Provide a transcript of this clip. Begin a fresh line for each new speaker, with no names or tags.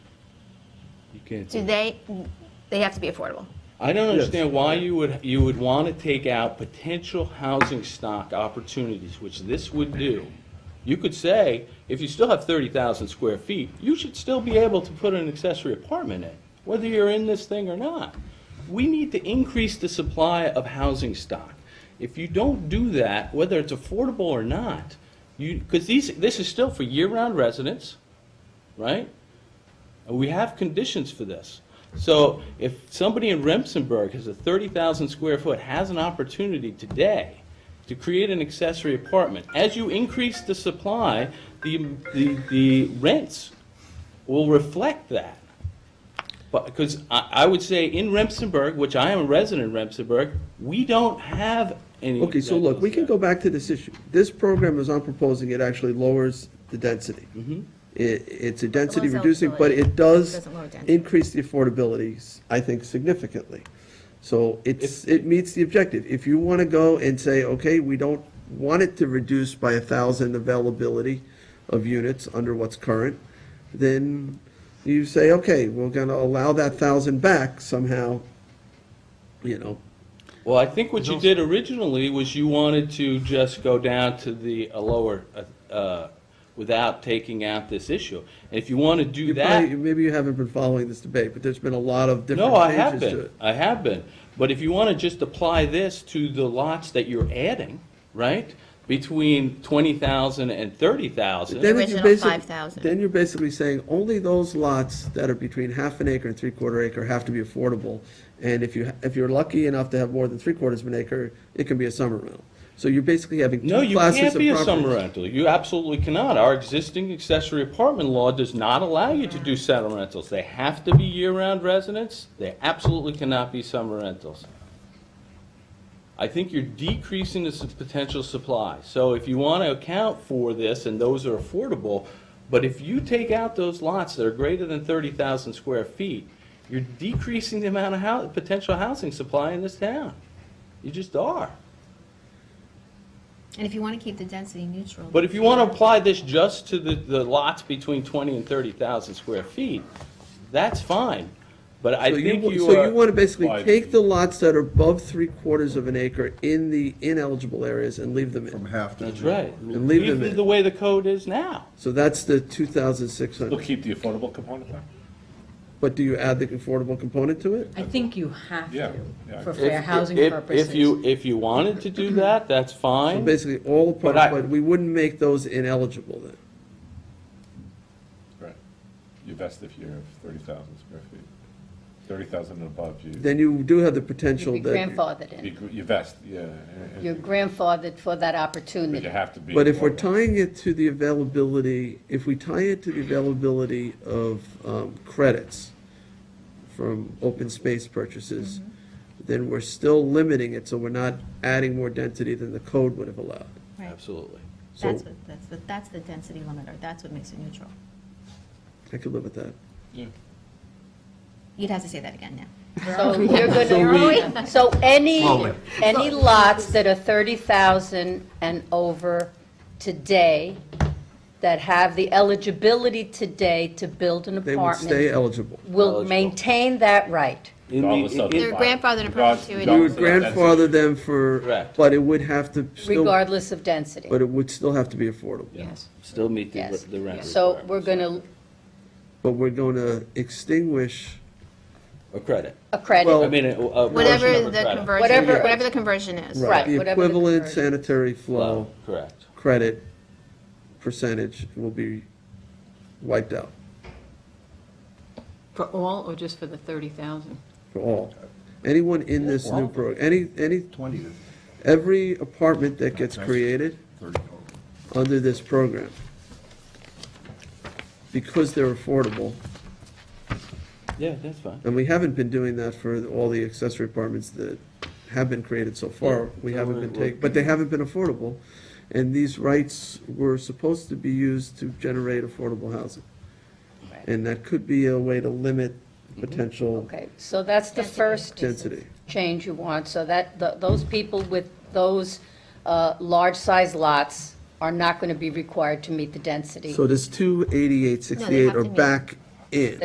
can't do
Do
that.
they, they have to be affordable.
I don't understand why you would, you would want to take out potential housing stock opportunities, which this would do. You could say, if you still have 30,000 square feet, you should still be able to put an accessory apartment in, whether you're in this thing or not. We need to increase the supply of housing stock. If you don't do that, whether it's affordable or not, you, because these, this is still for year-round residents, right? And We have conditions for this. So if somebody in Remsenburg has a 30,000 square foot, has an opportunity today to create an accessory apartment, as you increase the supply, the, the, the rents will reflect that. But, because I, I would say in Remsenburg, which I am a resident in Remsenburg, we don't have any.
Okay, so look, we can go
rentals
back to this issue. This program, as I'm proposing, it actually lowers the density. It, it's a density
Lowers
reducing, but
eligibility.
it does
Doesn't lower density.
increase the affordability, s- I think, significantly. So it's, it meets the objective. If you want to go and say, okay, we don't want it to reduce by a thousand availability of units under what's current, then you say, okay, we're going to allow that thousand back somehow, you know,
there. Well, I think what you did originally was you wanted to just go down to the, a lower, uh, uh, without taking out this issue. And if you want to do
You
that.
probably- Maybe you haven't been following this debate, but there's been a lot of different
No, I have
pages to
been,
it.
I have been. But if you want to just apply this to the lots that you're adding, right? Between 20,000 and 30,000,
Then
The
it's
original
basic-
5,000.
Then you're basically saying only those lots that are between half an acre and three-quarter acre have to be affordable. And if you, if you're lucky enough to have more than three-quarters of an acre, it can be a summer rental. So you're basically having two
no, you
classes
can't
of
be a
properties.
summer rental. You absolutely cannot. Our existing accessory apartment law does not allow you to do summer rentals. They have to be year-round residents. They absolutely cannot be summer rentals. I think you're decreasing the s- potential supply. So if you want to account for this, and those are affordable, but if you take out those lots that are greater than 30,000 square feet, you're decreasing the amount of hou- potential housing supply in this town. You just are.
And if you want to keep the density neutral.
But if you want to apply this just to the, the lots between 20 and 30,000 square feet, that's fine. But I
So you
think
wa-
you
So
are.
you want to basically
Why?
take the lots that are above three-quarters of an acre in the ineligible areas and leave them
From
in.
half to.
That's right.
And leave them
it
in.
The way the code is now.
So that's the 2,600.
We'll keep the affordable component there?
But do you add the affordable component to it?
I think you have
Yeah,
to,
yeah.
for
If-
fair
If-
housing
if-
purposes.
If you, if you wanted to do that, that's
So
fine.
Basically, all
But I-
apartments, but we wouldn't make those ineligible then.
Right. Your best if you have thirty thousand square feet. Thirty thousand and above, you,
Then you do have the
You'd
potential
be
that,
grandfathered in.
you- you vest, yeah. and- and-
You're grandfathered for that
But you
opportunity.
have to be.
but if we're
affordable.
tying it to the availability, if we tie it to the availability of um, credits from open space purchases, then we're still limiting it, so we're not adding more density than the code would have allowed.
Right.
Absolutely.
So
That's what, that's what, that's the density limiter, that's what makes it neutral.
I could live with that.
You'd have to say that again now.
So you're gonna, so any, any lots that are thirty thousand and over today, that have the eligibility today to build an
They would stay
apartment,
eligible.
will
Eligible.
maintain that right.
In
Regardless
the-
of
in-
the-
They're grandfathered in
Regardless-
perpetuity.
We
You
would
regardless of that density.
grandfather them for,
Correct.
but it would have to still, but
regardless of density.
it would still have to be affordable.
Yes.
Still meet the,
Yes.
the rent.
So
requirements.
we're gonna,
But we're going to extinguish
Or credit.
a credit.
Well,
I mean, a- a. portion
Whatever
of
the
credit.
conversion,
Whatever-
whatever the conversion is.
Right.
The
whatever the
equivalent
conversion.
sanitary flow
Correct.
credit percentage will be wiped out
For all or just for the 30,000?
for all. Anyone in this new pro, any, any,
Twenty to
every apartment that gets created
thirty total.
under this program, because they're affordable,
Yeah, that's fine.
and we haven't been doing that for all the accessory apartments that have been created so far. We
so
haven't been
it will-
taking, but they haven't been affordable, and these rights were supposed to be used to generate affordable housing.
Right.
And that could be a way to limit
Mm-hmm.
potential
Okay, so that's the
Density
first.
density.
change you want, so that, th- those people with those uh, large-size lots are not going to be required to meet the density.
So does two eighty-eight
No, they
sixty-eight
have
are
to meet-
back in?